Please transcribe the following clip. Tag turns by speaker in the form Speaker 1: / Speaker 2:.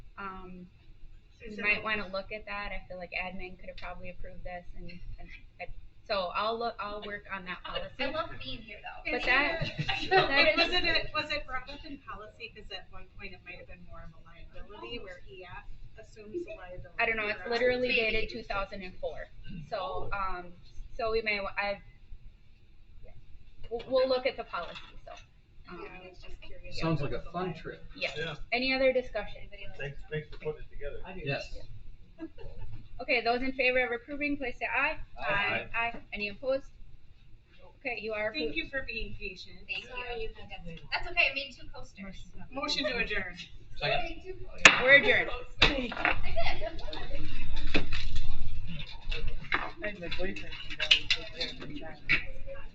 Speaker 1: um,
Speaker 2: So
Speaker 1: you
Speaker 2: so-
Speaker 1: might wanna look at that, I feel like admin could have probably approved this and, and, and- so I'll look, I'll work on that
Speaker 3: I
Speaker 1: policy.
Speaker 3: love being here though.
Speaker 1: But
Speaker 2: It's
Speaker 1: that-
Speaker 2: either-
Speaker 1: that
Speaker 2: Was
Speaker 1: is-
Speaker 2: it, a- was it brought up in policy, cause at one point it might have been more of a liability where EF assumes the liability.
Speaker 1: I don't know, it's
Speaker 2: right?
Speaker 1: literally dated two thousand and four, so, um, so we may, wa- I've, yeah. we'll, we'll look at the policy, so. um,
Speaker 2: Yeah, I was just curious.
Speaker 4: Sounds like
Speaker 2: if
Speaker 4: a
Speaker 2: it was
Speaker 4: fun
Speaker 2: liability.
Speaker 4: trip.
Speaker 1: Yeah,
Speaker 5: Yeah,
Speaker 1: any other discussion?
Speaker 5: thanks, thanks for putting it together.
Speaker 4: Yes.
Speaker 1: Okay, those in favor of approving, please say aye.
Speaker 4: Aye.
Speaker 1: Aye, any opposed? Okay, you are
Speaker 2: Thank
Speaker 1: approved.
Speaker 2: you for being patient.
Speaker 3: Thank you. That's okay, I made two coasters.
Speaker 2: Motion to adjourn.
Speaker 3: I
Speaker 4: Second.
Speaker 3: made two coasters.
Speaker 1: We're adjourned.
Speaker 3: I did.
Speaker 6: And the boyfriend, you know, was just there for a child.